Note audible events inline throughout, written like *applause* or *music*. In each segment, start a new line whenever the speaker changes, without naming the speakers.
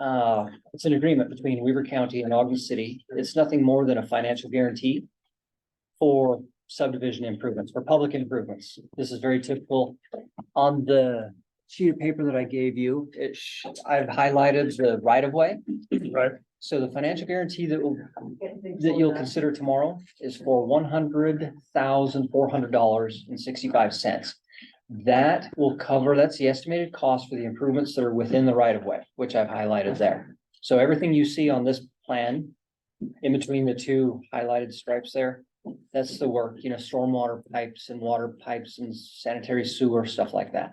uh, it's an agreement between Weaver County and Ogden City. It's nothing more than a financial guarantee for subdivision improvements, for public improvements. This is very typical. On the sheet of paper that I gave you, it, sh- I've highlighted the right of way.
Right.
So the financial guarantee that will that you'll consider tomorrow is for one hundred thousand, four hundred dollars and sixty-five cents. That will cover, that's the estimated cost for the improvements that are within the right of way, which I've highlighted there. So everything you see on this plan, in between the two highlighted stripes there, that's the work, you know, stormwater pipes and water pipes and sanitary sewer, stuff like that.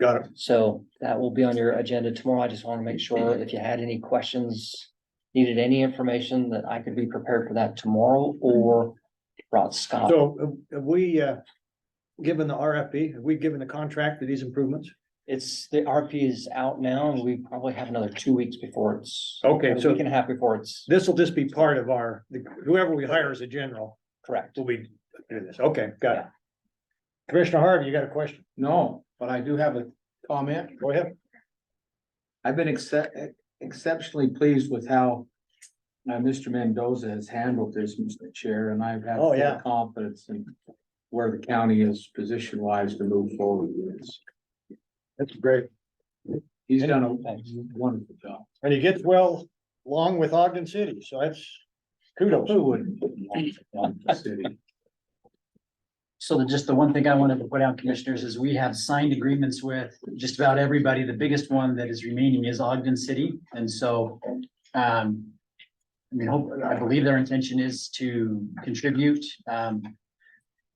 Got it.
So that will be on your agenda tomorrow. I just want to make sure if you had any questions, needed any information that I could be prepared for that tomorrow or brought Scott.
So have- have we, uh, given the RFP, have we given the contract for these improvements?
It's, the RP is out now and we probably have another two weeks before it's.
Okay,
a
so
Week and a half before it's
this will just be part of our, whoever we hire as a general
correct.
will be doing this. Okay, got it. Commissioner Harvey, you got a question?
No, but I do have a comment.
Go ahead.
I've been excep- exceptionally pleased with how uh, Mr. Mendoza has handled this, Mr. Chair, and I've had
Oh,
full
yeah.
confidence in where the county is position wise to move forward with this.
That's great.
He's done a
Thanks.
wonderful job.
And he gets well along with Ogden City, so that's kudos.
Who wouldn't? want the city?
So the, just the one thing I wanted to put out, commissioners, is we have signed agreements with just about everybody. The biggest one that is remaining is Ogden City. And so, um, I mean, hope, I believe their intention is to contribute, um,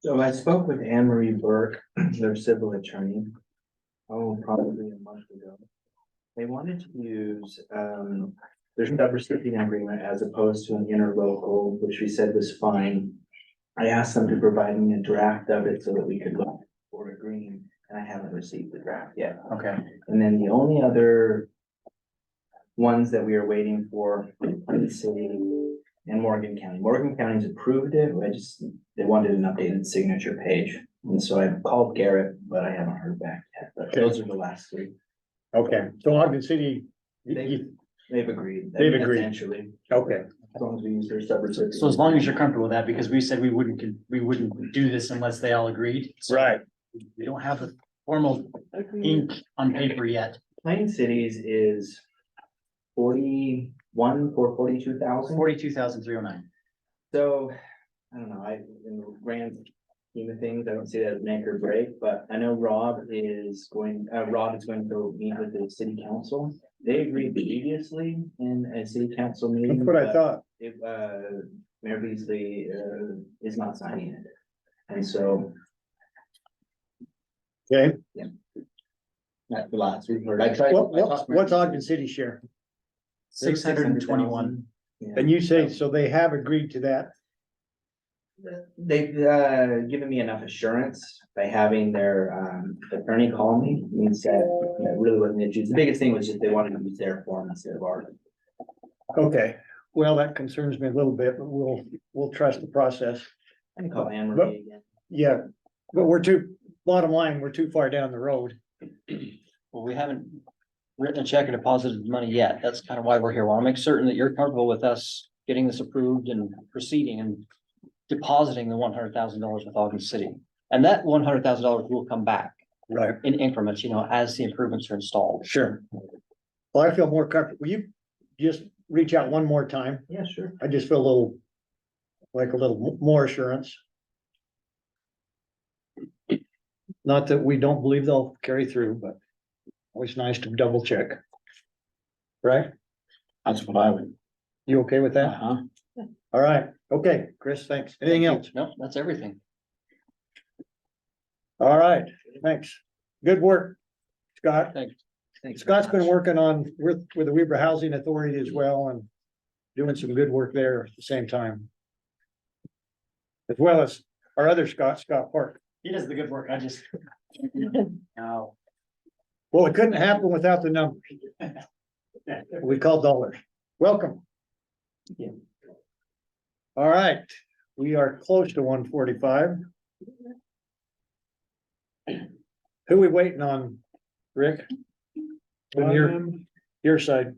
So I spoke with Anne Marie Burke, *clears throat* their civil attorney. Oh, probably a month ago. They wanted to use um their subrecipient agreement as opposed to an interlocal, which we said was fine. I asked them to provide me a draft of it so that we could look for agreeing, and I haven't received the draft yet.
okay.
And then the only other ones that we are waiting for are the city and Morgan County. Morgan County's approved it, I just, they wanted an updated signature page. And so I called Garrett, but I haven't heard back yet, but those are the last three.
Okay, so Ogden City, you-
They-
you-
They've agreed.
They've agreed.
Essentially,
okay,
as long as we use their subrecipient.
So as long as you're comfortable with that, because we said we wouldn't, con- we wouldn't do this unless they all agreed. So
right.
We don't have the formal ink on paper yet.
Plain Cities is forty-one, or forty-two thousand.
Forty-two thousand three oh nine.
So, I don't know, I, in the grand scheme of things, I don't see that as make or break, but I know Rob is going, uh, Rob is going to meet with the city council. They agreed previously in a city council meeting.
That's what I
but
thought.
It, uh, Mayor Beasley, uh, is not signing it. And so
Okay,
that's the last we've heard. I tried.
what, what, what's Ogden City share?
Six hundred and twenty-one.
Yeah.
And you say, so they have agreed to that?
They've uh given me enough assurance by having their um attorney call me and said, you know, it really wasn't an issue. The biggest thing was just they wanted to use their form instead of ours.
Okay, well, that concerns me a little bit, but we'll, we'll trust the process.
I can call Anne Marie again.
Yeah, but we're too, bottom line, we're too far down the road.
Well, we haven't written a check or deposited the money yet. That's kind of why we're here. I want to make certain that you're comfortable with us getting this approved and proceeding and depositing the one hundred thousand dollars with Ogden City. And that one hundred thousand dollars will come back
Right.
in increments, you know, as the improvements are installed.
Sure. Well, I feel more comfortable. Will you just reach out one more time?
Yeah, sure.
I just feel a little, like a little mo- more assurance. Not that we don't believe they'll carry through, but always nice to double check. Right?
That's what I would.
You okay with that?
Uh-huh.
All right. Okay, Chris, thanks. Anything else?
No, that's everything.
All right, thanks. Good work, Scott.
Thanks.
Scott's been working on with with the Weber Housing Authority as well and doing some good work there at the same time. As well as our other Scott, Scott Park.
He does the good work. I just. No.
Well, it couldn't happen without the numbers. We call dollars. Welcome. All right, we are close to one forty-five. Who we waiting on, Rick? On your, your side.